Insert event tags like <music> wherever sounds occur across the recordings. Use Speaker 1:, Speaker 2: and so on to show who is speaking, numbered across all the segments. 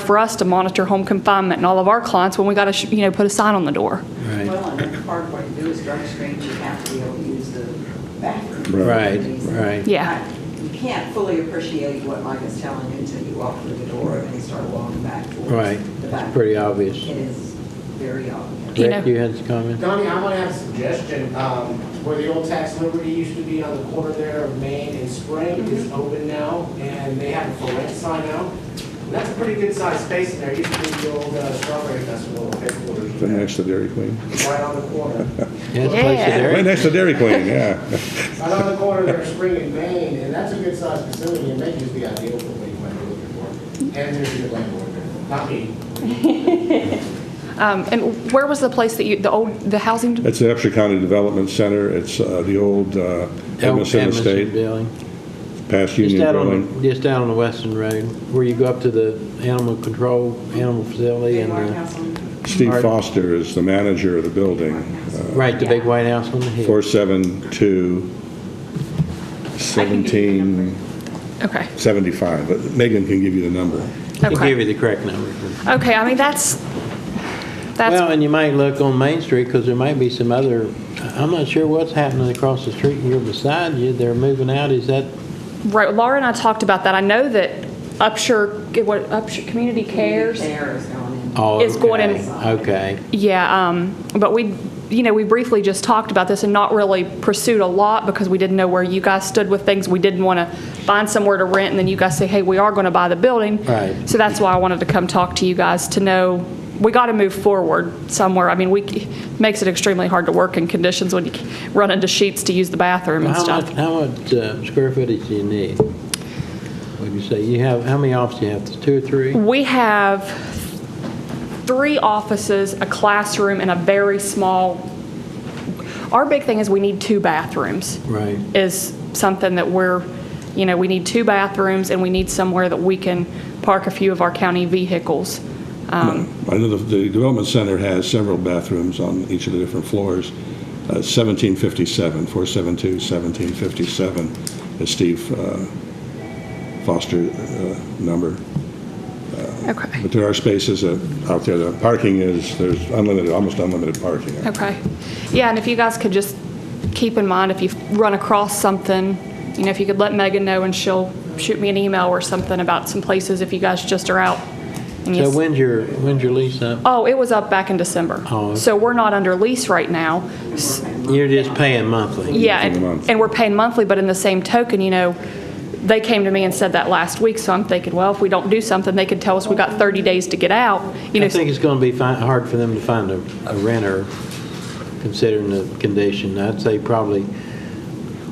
Speaker 1: for us to monitor home confinement and all of our clients when we got to, you know, put a sign on the door.
Speaker 2: Right,
Speaker 3: Well, and the hard part to do is drug screens, you have to be able to use the bathroom.
Speaker 2: right, right.
Speaker 1: Yeah.
Speaker 3: You can't fully appreciate what Mike is telling you until you walk through the door and you start walking back towards
Speaker 2: Right.
Speaker 3: the
Speaker 2: It's
Speaker 3: back.
Speaker 2: pretty obvious.
Speaker 3: It is very obvious.
Speaker 1: You
Speaker 2: Rick,
Speaker 1: know-
Speaker 2: you had some comment?
Speaker 4: Donnie, I want to have a suggestion. Um, Where the old Tax Liberty used to be on the corner there of Main and Spring is open now, and they have a for rent sign out. And that's a pretty good sized space in there. Used to be the old uh, Strawberry Festival headquarters,
Speaker 5: Right next to Dairy Queen.
Speaker 4: right on the corner.
Speaker 2: Yeah, it's a place to
Speaker 1: Yeah.
Speaker 2: dare-
Speaker 5: Right next to Dairy Queen, yeah.
Speaker 4: Right on the corner there, Spring and Main, and that's a good sized facility, and that is the ideal for what you might be looking for. And there's a good landlord there. Not me.
Speaker 1: Um, And where was the place that you, the old, the housing?
Speaker 5: It's the Upshur County Development Center. It's uh, the old uh, Emerson
Speaker 2: Emerson
Speaker 5: Estate,
Speaker 2: Building.
Speaker 5: past
Speaker 2: Just
Speaker 5: Union
Speaker 2: out
Speaker 5: Building.
Speaker 2: on, just out on the Western Road, where you go up to the animal control, animal facility
Speaker 3: Big
Speaker 2: and,
Speaker 3: Mark
Speaker 2: uh,
Speaker 3: House on-
Speaker 5: Steve
Speaker 2: Art-
Speaker 5: Foster is the manager of the building, uh,
Speaker 2: right, the big white house on the hill.
Speaker 5: 472-1775.
Speaker 1: Okay,
Speaker 5: But Megan can give you the number.
Speaker 2: He
Speaker 1: okay.
Speaker 2: gave you the correct number.
Speaker 1: Okay, I mean, that's,
Speaker 2: Well,
Speaker 1: that's,
Speaker 2: and you might look on Main Street, because there might be some other, I'm not sure what's happening across the street here beside you. They're moving out, is that,
Speaker 1: right, Laura and I talked about that. I know that Upshur, what, Upshur Community Cares?
Speaker 3: Care is going in.
Speaker 2: oh,
Speaker 1: It's going in-
Speaker 2: okay, Okay.
Speaker 1: Yeah, um, but we, you know, we briefly just talked about this and not really pursued a lot because we didn't know where you guys stood with things. We didn't want to find somewhere to rent and then you guys say, hey, we are going to buy the building.
Speaker 2: Right.
Speaker 1: So that's why I wanted to come talk to you guys to know, we got to move forward somewhere. I mean, we, it makes it extremely hard to work in conditions when you run into sheets to use the bathroom and
Speaker 2: How
Speaker 1: stuff.
Speaker 2: much, how much uh, square footage do you need? Would you say, you have, how many offices do you have, two or three?
Speaker 1: We have three offices, a classroom, and a very small, our big thing is we need two bathrooms.
Speaker 2: Right.
Speaker 1: Is something that we're, you know, we need two bathrooms, and we need somewhere that we can park a few of our county vehicles.
Speaker 5: I know the- the Development Center has several bathrooms on each of the different floors. Uh, 1757, 472-1757 is Steve uh, Foster uh, number.
Speaker 1: Okay.
Speaker 5: But there are spaces that- out there, the parking is, there's unlimited, almost unlimited parking.
Speaker 1: Okay. Yeah, and if you guys could just keep in mind, if you run across something, you know, if you could let Megan know, and she'll shoot me an email or something about some places if you guys just are out. and you
Speaker 2: So
Speaker 1: s-
Speaker 2: when's your, when's your lease up?
Speaker 1: Oh, it was up back in December.
Speaker 2: Oh, okay.
Speaker 1: So we're not under lease right now. S-
Speaker 2: You're just paying monthly?
Speaker 1: Yeah,
Speaker 5: paying a
Speaker 1: and
Speaker 5: month.
Speaker 1: and we're paying monthly, but in the same token, you know, they came to me and said that last week, so I'm thinking, well, if we don't do something, they could tell us we got 30 days to get out, you know.
Speaker 2: I think it's going to be fi- hard for them to find a a renter, considering the condition. I'd say probably,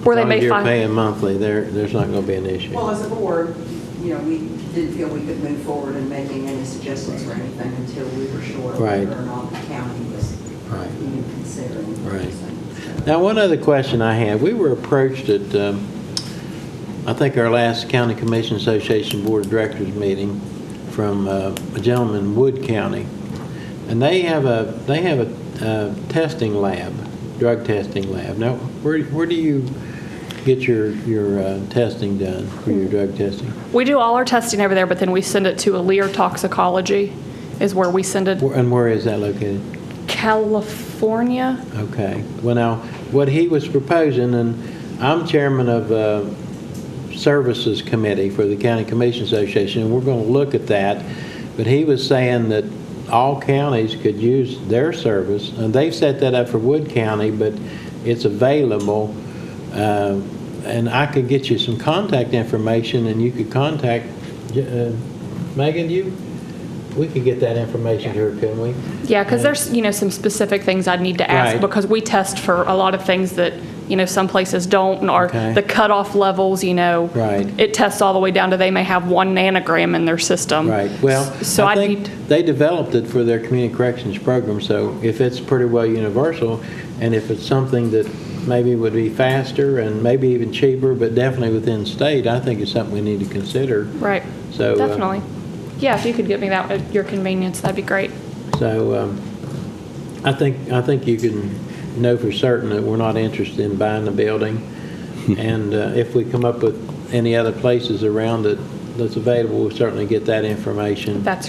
Speaker 1: where they
Speaker 2: as long
Speaker 1: may
Speaker 2: as you're
Speaker 1: find-
Speaker 2: paying monthly, there, there's not going to be an
Speaker 3: Well,
Speaker 2: issue.
Speaker 3: as a board, you know, we didn't feel we could move forward in making any suggestions or anything until we were sure
Speaker 2: Right.
Speaker 3: whether or not the county was
Speaker 2: Right.
Speaker 3: even considering.
Speaker 2: Right.
Speaker 3: anything.
Speaker 2: Now, one other question I have, we were approached at, um, I think our last County Commission Association Board of Directors meeting from uh, a gentleman in Wood County, and they have a, they have a uh, testing lab, drug testing lab. Now, where, where do you get your, your uh, testing done, for your drug testing?
Speaker 1: We do all our testing over there, but then we send it to Aleer Toxicology is where we send it.
Speaker 2: Where- And where is that located?
Speaker 1: California?
Speaker 2: Okay. Well, now, what he was proposing, and I'm chairman of uh Services Committee for the County Commission Association, and we're going to look at that, but he was saying that all counties could use their service, and they've set that up for Wood County, but it's available, uh, and I could get you some contact information, and you could contact, uh, Megan, you, we could get that information to her, couldn't we?
Speaker 1: Yeah, because there's, you know, some specific things I'd need to ask
Speaker 2: Right.
Speaker 1: because we test for a lot of things that, you know, some places don't and are
Speaker 2: Okay.
Speaker 1: the cutoff levels, you know.
Speaker 2: Right.
Speaker 1: It tests all the way down to they may have one nanogram in their system.
Speaker 2: Right, well,
Speaker 1: Um, So
Speaker 2: I
Speaker 1: I need,
Speaker 2: think they developed it for their community corrections program, so if it's pretty well universal, and if it's something that maybe would be faster and maybe even cheaper, but definitely within state, I think it's something we need to consider.
Speaker 1: right.
Speaker 2: So, uh,
Speaker 1: Definitely. Yeah, if you could get me that at your convenience, that'd be great.
Speaker 2: So um, I think, I think you can know for certain that we're not interested in buying the
Speaker 1: <laughs>
Speaker 2: building, and uh, if we come up with any other places around it that's available, we'll certainly get that information.
Speaker 1: That's